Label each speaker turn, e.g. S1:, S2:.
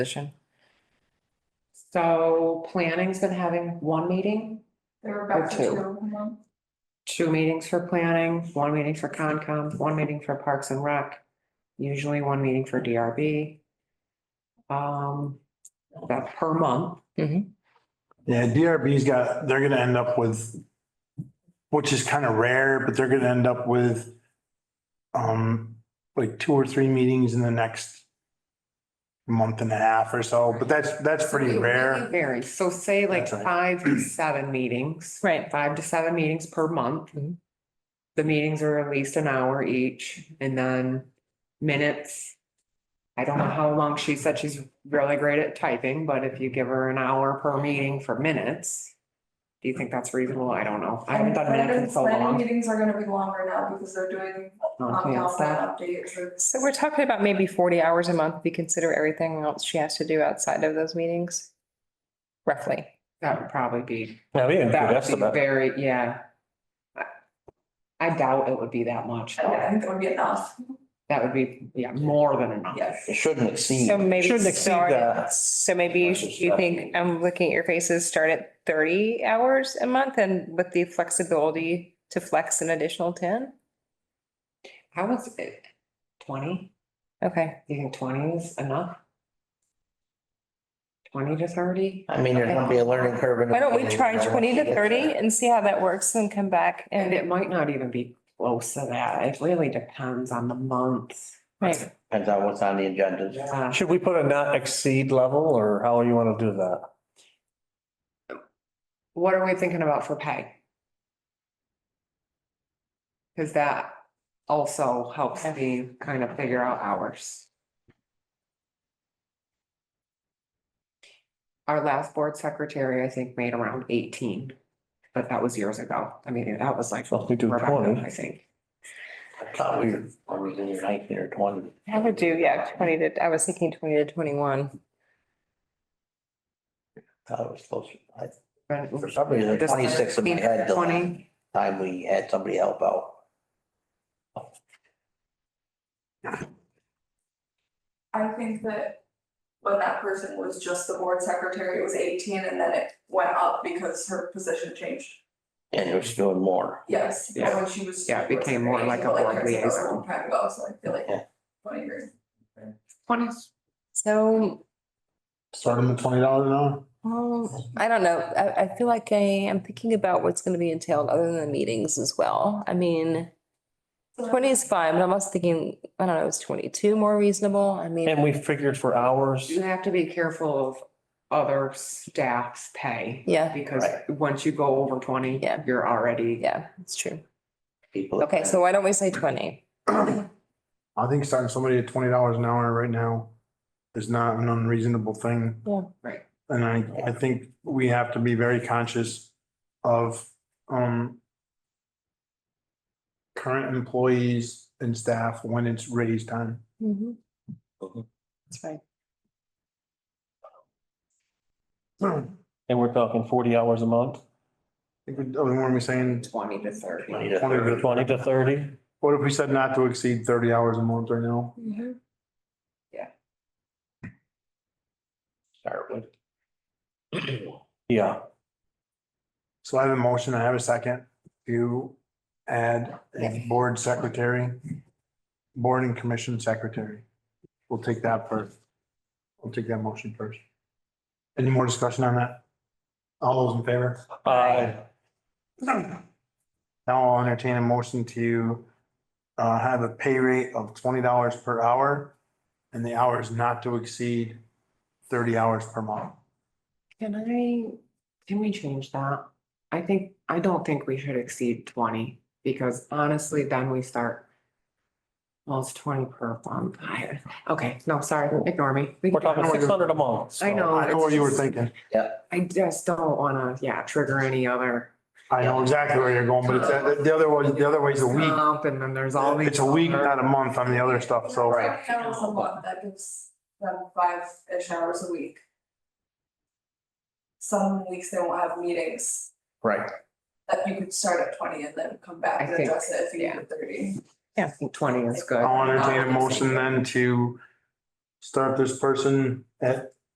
S1: position. So planning's been having one meeting,
S2: They were back to
S1: two.
S2: two a month.
S1: two meetings for planning, one meeting for Concom, one meeting for Parks and Rec, usually one meeting for DRB. Um, that per month.
S3: Yeah, DRB's got, they're gonna end up with, which is kind of rare, but they're gonna end up with um, like two or three meetings in the next month and a half or so, but that's, that's pretty rare.
S1: Varies. So say like
S3: That's right.
S1: five to seven meetings.
S4: Right.
S1: Five to seven meetings per month.
S4: Mhm.
S1: The meetings are at least an hour each and then minutes. I don't know how long she said she's really great at typing, but if you give her an hour per meeting for minutes. Do you think that's reasonable? I don't know. I haven't done
S2: And
S1: minutes in so
S2: planning
S1: long.
S2: Meetings are gonna be longer now because they're doing
S1: Not
S2: um,
S1: past that.
S2: outbound updates.
S4: So we're talking about maybe forty hours a month, if you consider everything else she has to do outside of those meetings. Roughly.
S1: That would probably be,
S5: Yeah, we didn't do
S1: that would be
S5: estimate.
S1: very, yeah. I- I doubt it would be that much.
S2: I I think that would be enough,
S1: That would be, yeah, more than enough.
S2: yes.
S5: It shouldn't exceed.
S4: So maybe
S5: Shouldn't exceed
S4: start,
S5: that.
S4: so maybe you should- you think, I'm looking at your faces, start at thirty hours a month and with the flexibility to flex an additional ten?
S1: How was it? Twenty?
S4: Okay,
S1: Do you think twenty is enough? Twenty to thirty?
S5: I mean, there's gonna be a learning curve.
S4: why don't we try twenty to thirty and see how that works and come back
S1: And
S4: and,
S1: it might not even be close to that. It really depends on the month.
S4: right,
S5: Depends on what's on the agenda.
S1: Yeah.
S6: Should we put a not exceed level or how you want to do that?
S1: What are we thinking about for pay? Cause that also helps me kind of figure out hours. Our last board secretary, I think, made around eighteen, but that was years ago. I mean, that was like.
S6: Well, we do
S1: Rebecca,
S6: 20.
S1: I think.
S5: I thought we were, I was in your nineteen or twenty.
S4: I would do, yeah, twenty to, I was thinking twenty to twenty-one.
S5: Thought it was closer. I-
S1: But
S5: For some reason,
S1: Just-
S5: twenty-six in my head, the last
S1: Twenty,
S5: time we had somebody help out.
S2: I think that when that person was just the board secretary, it was eighteen and then it went up because her position changed.
S5: And it was doing more.
S2: Yes, and
S1: Yeah.
S2: when she was.
S1: Yeah, it became more like a
S2: But
S1: board
S2: I said, that was a
S1: liaison.
S2: long Time ago, so I feel like,
S5: Yeah.
S2: twenty years.
S1: twenty
S4: So
S3: Start them at twenty dollars an hour.
S4: Um, I don't know. I, I feel like I am thinking about what's gonna be entailed other than the meetings as well. I mean, twenty is fine, but I'm also thinking, I don't know, is twenty-two more reasonable? I
S6: And
S4: mean,
S6: we figured for hours,
S1: You have to be careful of other staff's pay.
S4: yeah,
S1: Because
S5: Right.
S1: once you go over twenty,
S4: Yeah.
S1: you're already,
S4: yeah, it's true.
S5: People.
S4: Okay, so why don't we say twenty?
S3: I think starting somebody at twenty dollars an hour right now is not an unreasonable thing.
S4: Yeah.
S1: Right.
S3: And I, I think we have to be very conscious of, um, current employees and staff when it's raise time.
S4: That's
S5: Mhm.
S4: right.
S3: I
S6: and we're talking forty hours a month,
S3: think we, oh, weren't we saying,
S1: twenty to thirty.
S5: Twenty to
S3: 20 to
S5: thirty.
S6: twenty to thirty.
S3: what if we said not to exceed thirty hours a month right now?
S5: Start with.
S6: Yeah,
S3: So I have a motion, I have a second to add a board secretary, board and commission secretary. We'll take that first. We'll take that motion first. Any more discussion on that? All those in favor?
S6: I,
S3: Now I'll entertain a motion to uh, have a pay rate of twenty dollars per hour and the hours not to exceed thirty hours per month.
S1: Can I, can we change that? I think, I don't think we should exceed twenty, because honestly, then we start. Well, it's twenty per month. I- Okay, no, sorry, ignore me. We
S6: we're
S1: can-
S6: talking six hundred a month. so-
S1: I know.
S3: I know what you were thinking.
S1: I just don't wanna, yeah, trigger any other.
S3: I know exactly where you're going, but it's uh, the other one, the other way's a week.
S1: comp, And then there's all these.
S3: It's a week,
S1: other-
S3: not a month on the other stuff, so.
S2: Right, that was a month, that gives them five-ish hours a week. Some weeks they won't have meetings,
S5: Right.
S2: that you could start at twenty and then come back
S1: I
S2: and
S1: think,
S2: adjust it if you
S1: yeah.
S2: need thirty.
S1: Yeah, I think twenty is good.
S3: I'll entertain a motion then to start this person at